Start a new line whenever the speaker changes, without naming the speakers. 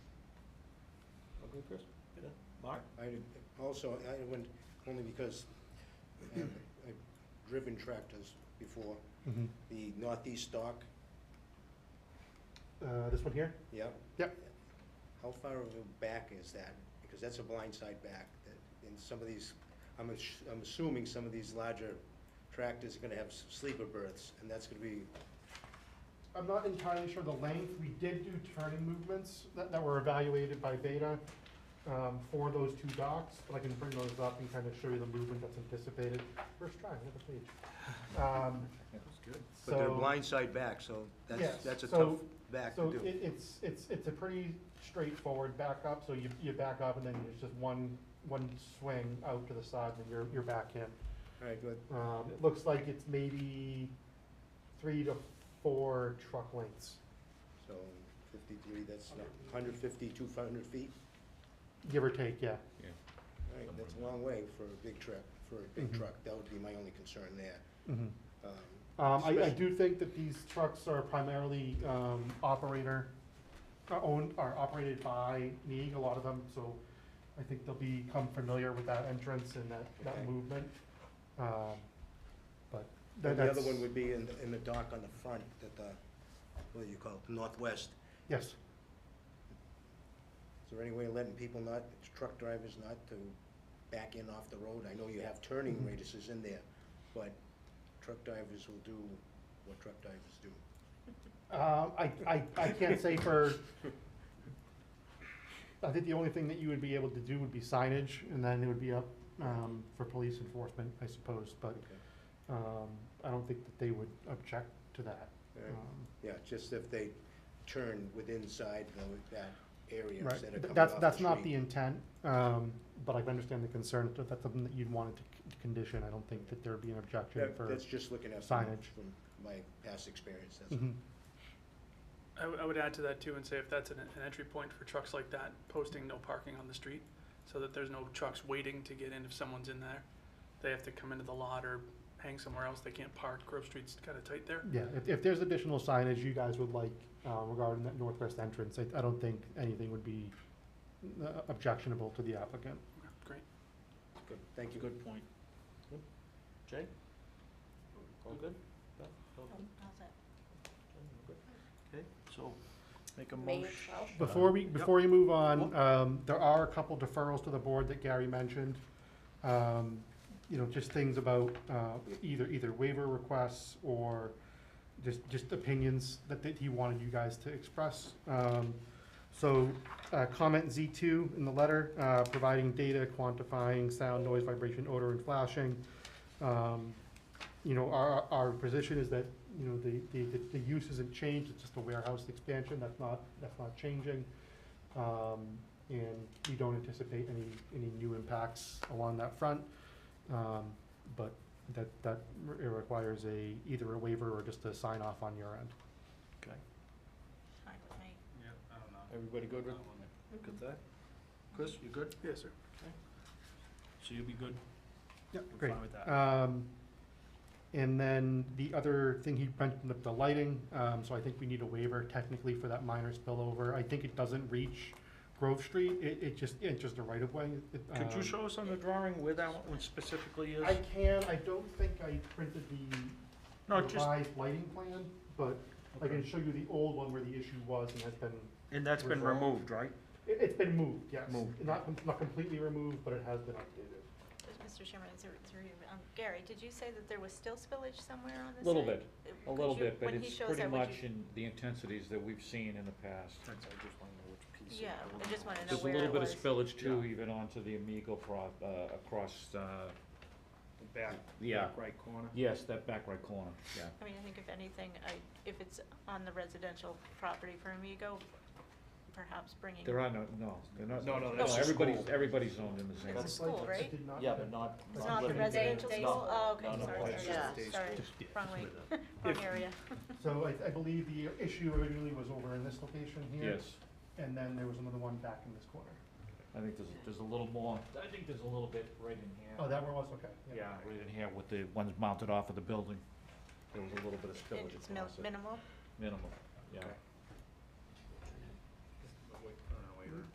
Any person? No. Mark?
I did- also, I went, only because I've I've driven tractors before,
Mhm.
the northeast stock,
Uh, this one here?
yeah?
Yep.
How far of a back is that? Because that's a blindside back, that- and some of these, I'm, ass- I'm assuming some of these larger tractors are gonna have s- sleeper berths, and that's gonna be,
I'm not entirely sure the length. We did do turning movements that, that were evaluated by Beta um, for those two docks, but I can bring those up and kind of show you the movement that's anticipated. First try, another page. Um,
but they're
So-
blindside back, so that's,
Yes,
that's a tough
so-
back
So
to
it,
do.
it's, it's, it's a pretty straightforward backup, so you, you back up and then it's just one, one swing out to the side and you're, you're back in.
All right, good.
Um, it looks like it's maybe three to four truck lengths,
So fifty-three, that's hundred fifty, two hundred feet?
give or take, yeah.
All right, that's a long way for a big truck, for a big
Mhm.
truck, that would be my only concern there. Um,
Um, I, I
especially-
do think that these trucks are primarily, um, operator, are owned, are operated by Neeg, a lot of them, so I think they'll become familiar with that entrance and that, that
Okay.
movement. Um, But that,
and The
that's.
other one would be in, in the dock on the front, at the, what do you call it, northwest.
Yes,
Is there any way of letting people not, truck drivers not to back in off the road? I know you have turning
Mhm.
radiuses in there, but truck drivers will do what truck drivers do.
um, I, I, I can't say for, I think the only thing that you would be able to do would be signage, and then it would be up, um, for police enforcement, I suppose, but,
Okay.
um, I don't think that they would object to that.
All right.
Um,
Yeah, just if they turn within side the- that area
Right,
instead of
Th-
coming
that's,
off
that's
the
not the
street.
intent, um, but I can understand the concern, if that's something that you'd want it to c- to condition, I don't think that there'd be an objection
That-
for.
That's just looking at from
signage.
from my past experience, that's
Mhm.
I, w- I would add to that too and say if that's an, an entry point for trucks like that, posting no parking on the street so that there's no trucks waiting to get in if someone's in there. They have to come into the lot or hang somewhere else. They can't park. Grove Street's kind of tight there.
Yeah, if, if there's additional signage you guys would like, uh, regarding that northwest entrance, I, I don't think anything would be uh, objectionable to the applicant.
Great.
Good, thank you.
Good point. Jay? All good? No? All good? Okay, so make a
May
motion.
twelfth.
Before we, before you move on, um, there are a couple deferrals to the board that Gary mentioned. Um, you know, just things about, uh, either, either waiver requests or just, just opinions that, that he wanted you guys to express. Um, so, uh, comment Z two in the letter, uh, providing data quantifying sound, noise, vibration, odor, and flashing. Um, you know, our, our position is that, you know, the, the, the use isn't changed, it's just a warehouse expansion, that's not, that's not changing. Um, and we don't anticipate any, any new impacts along that front. Um, but that, that re- it requires a, either a waiver or just a sign off on your end.
Okay,
Fine with me.
Yeah, I don't know.
everybody good with,
Mhm.
good that? Chris, you good?
Yes, sir.
So you'll be good?
Yep,
We're
great.
fine with that.
Um, and then the other thing he mentioned, the- the lighting, um, so I think we need a waiver technically for that minor spillover. I think it doesn't reach Grove Street, it, it just, it's just a right of way. It,
Could you
um,
show us on the drawing where that one specifically is?
I can, I don't think I printed the
No, just,
revised lighting plan, but I can show you the old one where the issue was and has been,
and that's been
resolve.
removed, right?
it, it's been moved, yes.
Moved.
Not, com- not completely removed, but it has been updated.
Mr. Chairman, through, through, you, um, Gary, did you say that there was still spillage somewhere on the site?
Little bit,
Uh,
a
could
little
you-
bit, but
when he
it's
shows
pretty
that, would you-
much in the intensities that we've seen in the past.
That's, I just wanna know which piece. it-
Yeah, I just wanna know
There's a
where
little
it
bit of
was.
spillage too,
Yeah.
even onto the Amigo prop, uh, across, uh,
The Back,
yeah,
back right corner.
yes, that back right corner, yeah.
I mean, I think if anything, I, if it's on the residential property for Amigo, perhaps bringing.
There are no, no, they're not.
No, no, that's the
Everybody's,
school.
everybody's zoned in the same.
It's a school,
I
right?
did not-
Yeah, but not.
It's not the
living
residential
space.
school? Oh, okay,
No, no,
sorry,
it's
sorry,
just a day
sorry,
school.
wrong way, wrong area.
So I, I believe the issue originally was over in this location here.
Yes,
And then there was another one back in this corner.
I think there's, there's a little more, I think there's a little bit right in here.
Oh, that one was, okay.
Yeah, right in here with the ones mounted off of the building, there was a little bit of
And
spillage
It's mil-
across it,
minimal?
minimal, yeah.
Okay.